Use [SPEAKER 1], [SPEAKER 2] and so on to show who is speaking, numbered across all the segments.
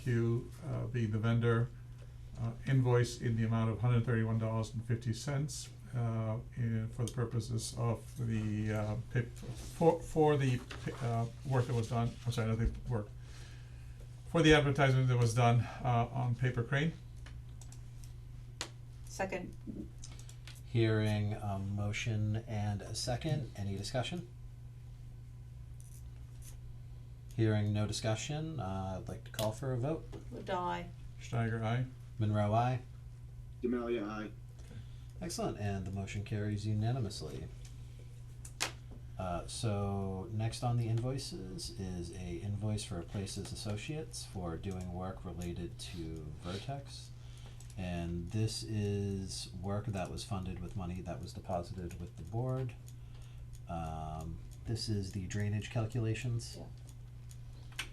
[SPEAKER 1] Q, uh, be the vendor, uh, invoice in the amount of hundred and thirty-one dollars and fifty cents, uh, in, for the purposes of the, uh, pa- for, for the, pa- uh, work that was done, I'm sorry, not the work, for the advertisement that was done, uh, on Paper Crane.
[SPEAKER 2] Second,
[SPEAKER 3] Hearing a motion and a second, any discussion? Hearing no discussion, uh, I'd like to call for a vote.
[SPEAKER 2] Ladai,
[SPEAKER 1] Steiger, aye.
[SPEAKER 3] Monroe, aye.
[SPEAKER 4] Demalia, aye.
[SPEAKER 3] Excellent, and the motion carries unanimously. Uh, so next on the invoices is a invoice for Places Associates for doing work related to Vertex. And this is work that was funded with money that was deposited with the board. Um, this is the drainage calculations.
[SPEAKER 2] Yeah.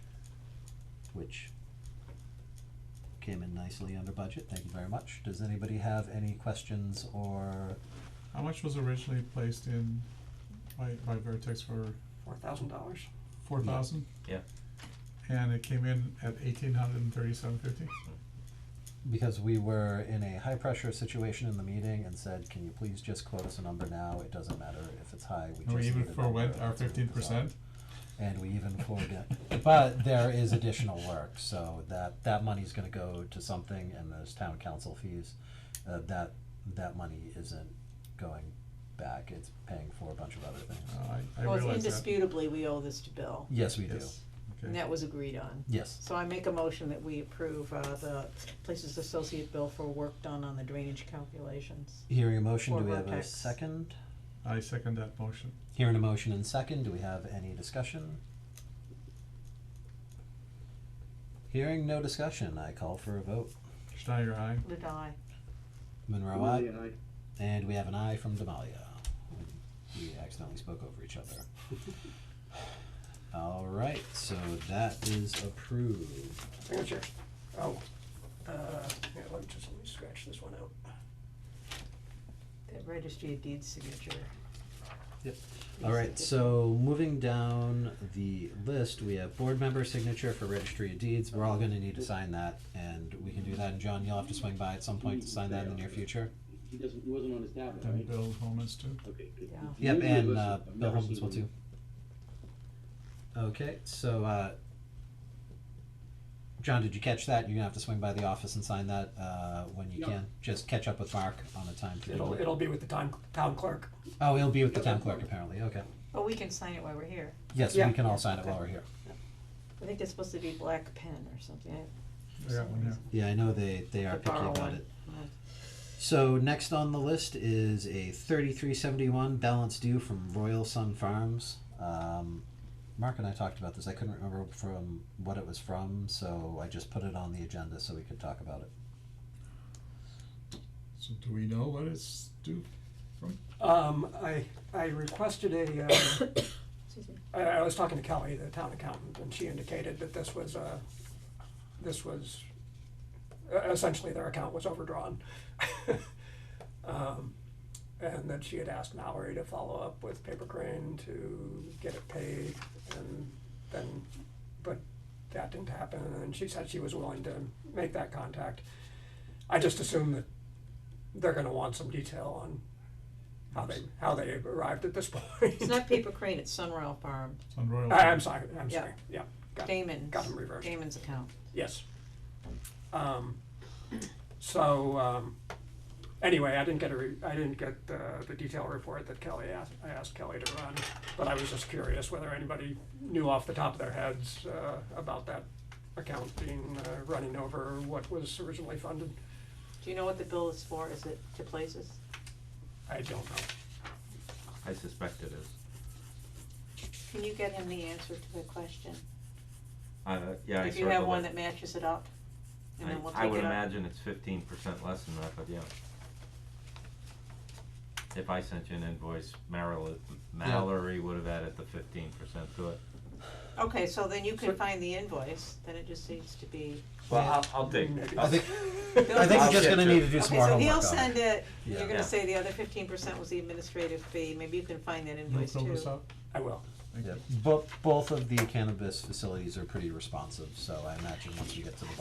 [SPEAKER 3] Which came in nicely under budget, thank you very much. Does anybody have any questions or
[SPEAKER 1] How much was originally placed in by, by Vertex for
[SPEAKER 5] Four thousand dollars.
[SPEAKER 1] four thousand?
[SPEAKER 6] Yeah.
[SPEAKER 1] And it came in at eighteen hundred and thirty-seven fifty?
[SPEAKER 3] because we were in a high pressure situation in the meeting and said, can you please just quote us a number now? It doesn't matter if it's high, we just
[SPEAKER 1] And we
[SPEAKER 3] need
[SPEAKER 1] even
[SPEAKER 3] a number
[SPEAKER 1] forwent our
[SPEAKER 3] that's gonna
[SPEAKER 1] fifteen percent?
[SPEAKER 3] resolve." And we even forwent it. But there is additional work, so that, that money's gonna go to something and there's town council fees. Uh, that, that money isn't going back, it's paying for a bunch of other things.
[SPEAKER 1] Uh, I, I
[SPEAKER 2] well,
[SPEAKER 1] realize that.
[SPEAKER 2] indisputably, we owe this to Bill,
[SPEAKER 3] Yes, we do.
[SPEAKER 1] Yes,
[SPEAKER 2] and
[SPEAKER 1] okay.
[SPEAKER 2] that was agreed on.
[SPEAKER 3] Yes,
[SPEAKER 2] So I make a motion that we approve, uh, the Places Associate Bill for work done on the drainage calculations.
[SPEAKER 3] hearing a motion,
[SPEAKER 2] For
[SPEAKER 3] do we have a
[SPEAKER 2] Vertex.
[SPEAKER 3] second?
[SPEAKER 1] I second that motion.
[SPEAKER 3] Hearing a motion and second, do we have any discussion? Hearing no discussion, I call for a vote.
[SPEAKER 1] Steiger, aye.
[SPEAKER 2] Ladai,
[SPEAKER 3] Monroe, aye.
[SPEAKER 4] Demalia, aye.
[SPEAKER 3] And we have an aye from Demalia. We accidentally spoke over each other. All right, so that is approved.
[SPEAKER 5] Signature. Oh, uh, here, let me just, let me scratch this one out.
[SPEAKER 2] that registry of deeds signature.
[SPEAKER 3] Yep.
[SPEAKER 2] Yes,
[SPEAKER 3] All
[SPEAKER 2] it
[SPEAKER 3] right,
[SPEAKER 2] did.
[SPEAKER 3] so moving down the list, we have board member signature for registry of deeds. We're all gonna need to sign that and we can do that. And John, you'll have to swing by at some point to sign that in the near future.
[SPEAKER 4] He doesn't, he wasn't on his tablet,
[SPEAKER 1] And
[SPEAKER 4] right?
[SPEAKER 1] Bill Holman's too.
[SPEAKER 4] Okay. good.
[SPEAKER 2] Yeah.
[SPEAKER 3] Mm-hmm.
[SPEAKER 4] He
[SPEAKER 3] Yep,
[SPEAKER 4] usually
[SPEAKER 3] and
[SPEAKER 4] lists it.
[SPEAKER 3] uh,
[SPEAKER 4] I've
[SPEAKER 3] Bill
[SPEAKER 4] never
[SPEAKER 3] Holmes
[SPEAKER 4] seen
[SPEAKER 3] as well
[SPEAKER 4] him.
[SPEAKER 3] too. Okay, so uh, John, did you catch that? You're gonna have to swing by the office and sign that uh, when you
[SPEAKER 4] Yeah.
[SPEAKER 3] can. Just catch up with Mark on the time. for-
[SPEAKER 5] It'll, it'll be with the town, town clerk.
[SPEAKER 3] Oh, it'll be with the town clerk apparently. Okay.
[SPEAKER 2] Oh, we can sign it while we're here.
[SPEAKER 3] Yes,
[SPEAKER 5] Yeah.
[SPEAKER 3] we can all sign it while
[SPEAKER 5] Okay.
[SPEAKER 3] we're here.
[SPEAKER 2] I think it's supposed to be black pen or something. I- for
[SPEAKER 1] I got
[SPEAKER 2] some
[SPEAKER 1] one here.
[SPEAKER 2] reason.
[SPEAKER 3] Yeah, I know they they are
[SPEAKER 2] I
[SPEAKER 3] picky
[SPEAKER 2] borrow
[SPEAKER 3] about
[SPEAKER 2] one.
[SPEAKER 3] it.
[SPEAKER 2] Uh,
[SPEAKER 3] So next on the list is a thirty-three seventy-one balance due from Royal Sun Farms. Um, Mark and I talked about this. I couldn't remember from what it was from, so I just put it on the agenda so we could talk about it.
[SPEAKER 1] So do we know what it's due?
[SPEAKER 5] Um, I, I requested a, uh,
[SPEAKER 2] Excuse me.
[SPEAKER 5] I, I was talking to Kelly, the town accountant, and she indicated that this was, uh, this was, uh, essentially their account was overdrawn. Um, and that she had asked Mallory to follow up with Paper Crane to get it paid, and then, but that didn't happen, and she said she was willing to make that contact. I just assume that they're gonna want some detail on how they, how they arrived at this point.
[SPEAKER 2] It's not Paper Crane, it's Sunrail Farm,
[SPEAKER 1] It's on Royal.
[SPEAKER 5] I- Uh, I'm sorry, I'm
[SPEAKER 2] Yeah.
[SPEAKER 5] sorry, yeah, got,
[SPEAKER 2] Damon's,
[SPEAKER 5] got them reversed,
[SPEAKER 2] Damon's account.
[SPEAKER 5] yes. Um, so, um, anyway, I didn't get a re- I didn't get the, the detailed report that Kelly asked, I asked Kelly to run, but I was just curious whether anybody knew off the top of their heads, uh, about that account being, uh, running over what was originally funded,
[SPEAKER 2] Do you know what the bill is for? Is it to places?
[SPEAKER 5] I don't know.
[SPEAKER 6] I suspect it is.
[SPEAKER 2] Can you get him the answer to the question?
[SPEAKER 6] Uh, yeah, I
[SPEAKER 2] If you have
[SPEAKER 6] circled
[SPEAKER 2] one
[SPEAKER 6] it.
[SPEAKER 2] that matches it up, and then we'll
[SPEAKER 6] I, I
[SPEAKER 2] take
[SPEAKER 6] would
[SPEAKER 2] it up.
[SPEAKER 6] imagine it's fifteen percent less than that, but yeah. If I sent you an invoice, Mallory, Mallory would have added the fifteen percent to it.
[SPEAKER 2] Okay, so then you can
[SPEAKER 5] Sure.
[SPEAKER 2] find the invoice, then it just needs to be.
[SPEAKER 6] Well, I'll, I'll dig.
[SPEAKER 5] Maybe.
[SPEAKER 3] I think
[SPEAKER 2] Bill-
[SPEAKER 3] I think
[SPEAKER 6] I'll
[SPEAKER 3] we're just
[SPEAKER 6] get
[SPEAKER 3] gonna
[SPEAKER 6] to
[SPEAKER 3] need
[SPEAKER 6] it.
[SPEAKER 3] to do
[SPEAKER 2] Okay,
[SPEAKER 3] some more
[SPEAKER 2] so
[SPEAKER 3] homework
[SPEAKER 2] he'll
[SPEAKER 3] on
[SPEAKER 2] send
[SPEAKER 3] it.
[SPEAKER 2] it,
[SPEAKER 3] Yeah.
[SPEAKER 2] you're
[SPEAKER 6] Yeah.
[SPEAKER 2] gonna say the other fifteen percent was the administrative fee, maybe you can find that
[SPEAKER 1] You'll
[SPEAKER 2] invoice
[SPEAKER 1] fill this
[SPEAKER 2] too.
[SPEAKER 1] out?
[SPEAKER 5] I will,
[SPEAKER 1] Thank you.
[SPEAKER 3] Both both of the cannabis facilities are pretty responsive, so I imagine once we get to the